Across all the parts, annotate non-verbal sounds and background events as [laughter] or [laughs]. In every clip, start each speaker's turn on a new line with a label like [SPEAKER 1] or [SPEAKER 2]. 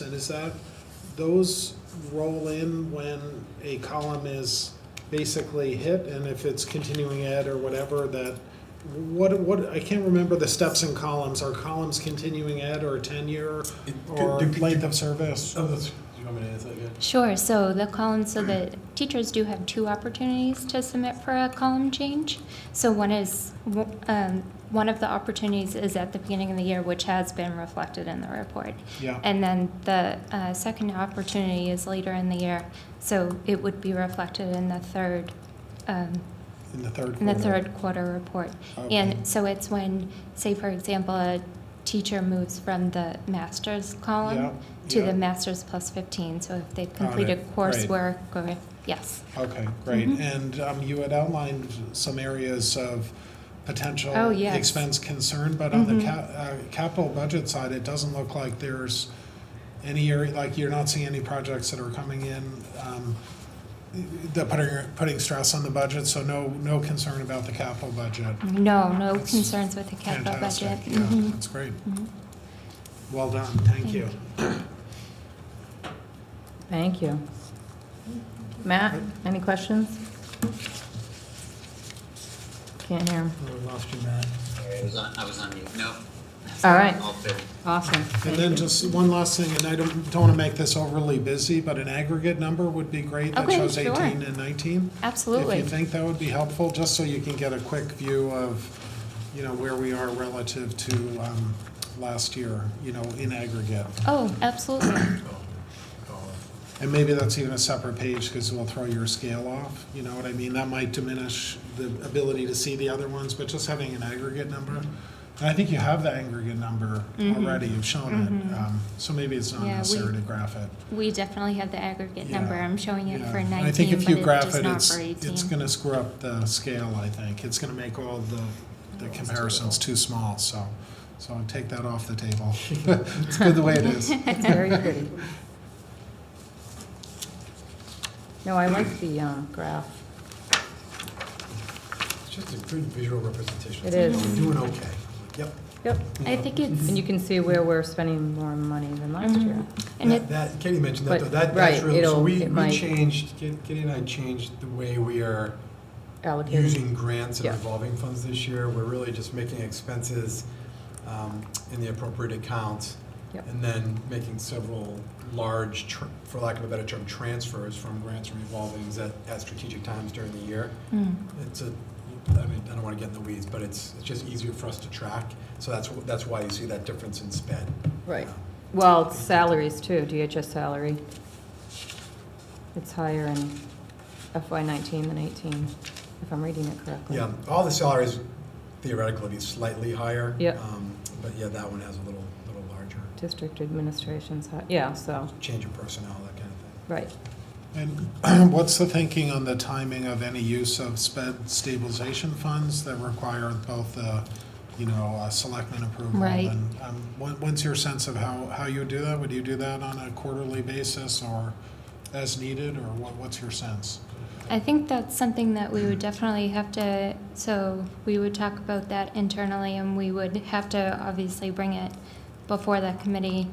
[SPEAKER 1] And is that, those roll in when a column is basically hit, and if it's continuing ed or whatever, that, what, what, I can't remember the steps in columns, are columns continuing ed or tenure
[SPEAKER 2] It-
[SPEAKER 1] or
[SPEAKER 2] do- do-
[SPEAKER 1] length of service?
[SPEAKER 2] Oh, that's, do you want me to answer that again?
[SPEAKER 3] Sure, so the column, so the teachers do have two opportunities to submit for a column change. So one is, um, one of the opportunities is at the beginning of the year, which has been reflected in the report.
[SPEAKER 1] Yeah,
[SPEAKER 3] And then the uh, second opportunity is later in the year, so it would be reflected in the third, um,
[SPEAKER 1] in the third
[SPEAKER 3] in the
[SPEAKER 1] quarter.
[SPEAKER 3] third quarter report.
[SPEAKER 1] Okay.
[SPEAKER 3] And so it's when, say, for example, a teacher moves from the master's
[SPEAKER 1] Yeah,
[SPEAKER 3] column to
[SPEAKER 1] yeah.
[SPEAKER 3] the master's plus 15, so if they've
[SPEAKER 1] Got it,
[SPEAKER 3] completed
[SPEAKER 1] great.
[SPEAKER 3] coursework or, yes.
[SPEAKER 1] Okay, great.
[SPEAKER 3] Mhm.
[SPEAKER 1] And um, you had outlined some areas of potential
[SPEAKER 3] Oh, yes.
[SPEAKER 1] expense concern, but on the
[SPEAKER 3] Mhm.
[SPEAKER 1] cap- uh, capital budget side, it doesn't look like there's any area, like you're not seeing any projects that are coming in um, that putting, putting stress on the budget, so no, no concern about the capital budget.
[SPEAKER 3] No, no
[SPEAKER 1] That's
[SPEAKER 3] concerns with the capital budget.
[SPEAKER 1] Fantastic. Yeah,
[SPEAKER 3] Mhm.
[SPEAKER 1] that's great.
[SPEAKER 3] Mhm.
[SPEAKER 1] Well done, thank
[SPEAKER 3] Thank
[SPEAKER 1] you.
[SPEAKER 4] Thank you. Matt, any questions? Can't hear him.
[SPEAKER 1] I lost you, Matt.
[SPEAKER 5] I was on, I was on mute. No.
[SPEAKER 4] All right,
[SPEAKER 5] All fair.
[SPEAKER 4] awesome.
[SPEAKER 1] And then just one last thing, and I don't, don't want to make this overly busy, but an aggregate number would be great that
[SPEAKER 3] Okay,
[SPEAKER 1] shows
[SPEAKER 3] sure.
[SPEAKER 1] 18 and 19. If
[SPEAKER 3] Absolutely.
[SPEAKER 1] you think that would be helpful, just so you can get a quick view of, you know, where we are relative to um, last year, you know, in aggregate.
[SPEAKER 3] Oh, absolutely.
[SPEAKER 1] And maybe that's even a separate page, because we'll throw your scale off, you know what I mean? That might diminish the ability to see the other ones, but just having an aggregate number. And I think you have the aggregate number
[SPEAKER 3] Mhm.
[SPEAKER 1] already, you've shown it,
[SPEAKER 3] Mhm.
[SPEAKER 1] um, so maybe it's not
[SPEAKER 3] Yeah, we-
[SPEAKER 1] necessary to graph it.
[SPEAKER 3] We definitely have the aggregate
[SPEAKER 1] Yeah,
[SPEAKER 3] number. I'm showing it
[SPEAKER 1] Yeah.
[SPEAKER 3] for
[SPEAKER 1] And I think
[SPEAKER 3] 19,
[SPEAKER 1] if
[SPEAKER 3] but
[SPEAKER 1] you
[SPEAKER 3] it
[SPEAKER 1] graph
[SPEAKER 3] does
[SPEAKER 1] it,
[SPEAKER 3] not
[SPEAKER 1] it's,
[SPEAKER 3] for
[SPEAKER 1] it's
[SPEAKER 3] 18.
[SPEAKER 1] gonna screw up the scale, I think. It's gonna make all the, the comparisons too small, so, so I'll take that off the table. It's good the way it
[SPEAKER 3] [laughs]
[SPEAKER 1] is.
[SPEAKER 4] It's very pretty. No, I like the um, graph.
[SPEAKER 2] It's just a good visual representation.
[SPEAKER 4] It is.
[SPEAKER 2] We're doing okay. Yep.
[SPEAKER 4] Yep.
[SPEAKER 3] I think it's,
[SPEAKER 4] And you can see where we're spending more money than last
[SPEAKER 3] Mhm.
[SPEAKER 4] year.
[SPEAKER 3] and
[SPEAKER 2] That-
[SPEAKER 3] it,
[SPEAKER 2] That, Katie mentioned that,
[SPEAKER 4] But-
[SPEAKER 2] though. That,
[SPEAKER 4] right,
[SPEAKER 2] that's really, so
[SPEAKER 4] it'll-
[SPEAKER 2] we,
[SPEAKER 4] it
[SPEAKER 2] we
[SPEAKER 4] might-
[SPEAKER 2] changed, Kit- Katie and I changed the way we are
[SPEAKER 4] Allocated.
[SPEAKER 2] using grants and
[SPEAKER 4] Yeah.
[SPEAKER 2] revolving funds this year. We're really just making expenses um, in the appropriate account.
[SPEAKER 4] Yep.
[SPEAKER 2] And then making several large, tr- for lack of a better term, transfers from grants and revolvings at, at strategic times during the year.
[SPEAKER 3] mm,
[SPEAKER 2] It's a, I mean, I don't want to get in the weeds, but it's, it's just easier for us to track. So that's, wh- that's why you see that difference in Um, sped.
[SPEAKER 4] Right. Well, salaries too, DHS salary. It's higher in FY nineteen than eighteen, if I'm reading it correctly.
[SPEAKER 2] Yeah, all the salaries theoretically be slightly higher.
[SPEAKER 4] Yep.
[SPEAKER 2] um, But yeah, that one has a little, little larger
[SPEAKER 4] District administration's, hi- yeah, so,
[SPEAKER 2] change in personnel, that kind of
[SPEAKER 4] right.
[SPEAKER 1] And [clears throat] what's the thinking on the timing of any use of sped stabilization funds that require both the, you know, uh, selectmen approval?
[SPEAKER 3] Right.
[SPEAKER 1] And um, what- what's your sense of how, how you would do that? Would you do that on a quarterly basis or as needed, or what, what's your sense?
[SPEAKER 3] I think that's something that we would definitely have to, so we would talk about that internally and we would have to obviously bring it before that committee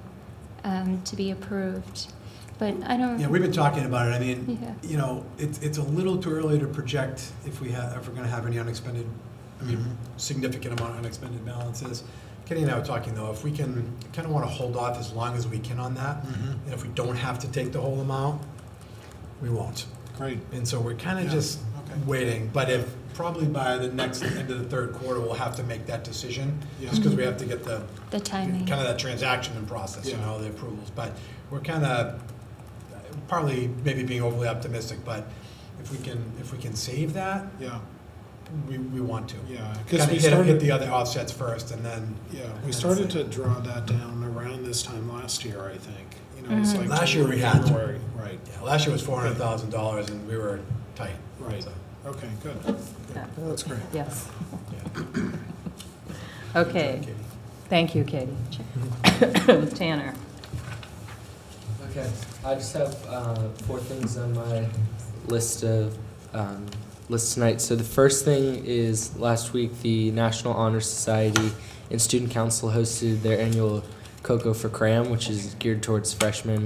[SPEAKER 3] um, to be approved. But I
[SPEAKER 2] thing. Yeah,
[SPEAKER 3] don't,
[SPEAKER 2] we've been talking about it. I mean,
[SPEAKER 3] Mm-hmm. Yeah.
[SPEAKER 2] you know, it's, it's a little too early to project if we have, if we're going to have any unexpended, I mean,
[SPEAKER 1] Mm-hmm.
[SPEAKER 2] significant amount of unexpended balances. Kenny and I were talking though, if we can, kind of want to hold off as long as we can on that.
[SPEAKER 1] Mhm.
[SPEAKER 2] And if we don't have to take the whole amount, we won't.
[SPEAKER 1] Great.
[SPEAKER 2] And so we're kind
[SPEAKER 1] Yeah,
[SPEAKER 2] of just
[SPEAKER 1] okay.
[SPEAKER 2] waiting, but if, probably by the next, end of the third quarter, we'll have to make that decision,
[SPEAKER 1] Yeah.
[SPEAKER 2] just because we have to get the,
[SPEAKER 3] the timing.
[SPEAKER 2] kind of that transaction and process, you
[SPEAKER 1] Yeah.
[SPEAKER 2] know, the approvals. But we're kind of, partly maybe being overly optimistic, but if we can, if we can save that,
[SPEAKER 1] Yeah,
[SPEAKER 2] we, we want to.
[SPEAKER 1] yeah. Because
[SPEAKER 2] Kind
[SPEAKER 1] we
[SPEAKER 2] of hit, hit
[SPEAKER 1] started,
[SPEAKER 2] the other offsets first, and then,
[SPEAKER 1] yeah, we
[SPEAKER 2] That's
[SPEAKER 1] started
[SPEAKER 2] it.
[SPEAKER 1] to draw that down around this time last year, I think. You know, it's
[SPEAKER 3] Mhm.
[SPEAKER 1] like
[SPEAKER 2] Last year we had to.
[SPEAKER 1] January, Right,
[SPEAKER 2] yeah, last year was four hundred thousand dollars, and we were tight.
[SPEAKER 1] right.
[SPEAKER 2] So,
[SPEAKER 1] Okay, good. Good. That's great.
[SPEAKER 4] Yes.
[SPEAKER 2] yeah.
[SPEAKER 4] Okay,
[SPEAKER 2] Katie.
[SPEAKER 4] thank you, Katie. [coughs] Tanner,
[SPEAKER 6] Okay, I just have uh, four things on my list of um, list tonight. So the first thing is last week the National Honor Society and Student Council hosted their annual Cocoa for Cram, which is geared towards freshmen